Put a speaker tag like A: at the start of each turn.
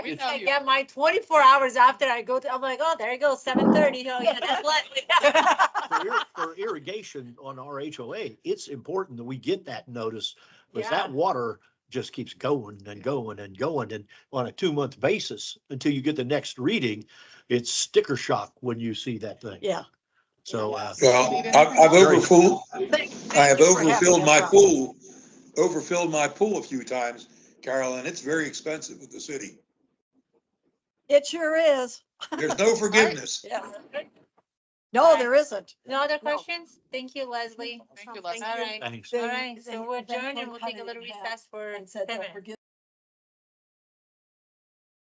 A: We
B: It's-
A: know
C: I
A: you.
C: get my twenty-four hours after I go to, I'm like, oh, there you go, seven thirty, oh, yeah, that's what.
B: For ir- For irrigation on our HOA, it's important that we get that notice, because
C: Yeah.
B: that water just keeps going and going and going, and on a two-month basis, until you get the next reading, it's sticker shock when you see that thing,
C: Yeah.
B: so, uh,
D: Well, I've, I've overfilled, I have overfilled my pool, overfilled my pool a few times, Carol, and it's very expensive with the city.
E: It sure is.
D: There's no forgiveness.
E: Yeah. No, there isn't.
C: No other questions? Thank you, Leslie.
A: Thank you,
C: All
A: Les.
C: right,
B: thanks.
C: all right,
E: Then-
C: so we're
E: then
C: adjourned and
E: one
C: we'll take a
E: cut it
C: little
E: in half
C: recess for
E: and said, "Don't
C: seven.
E: forget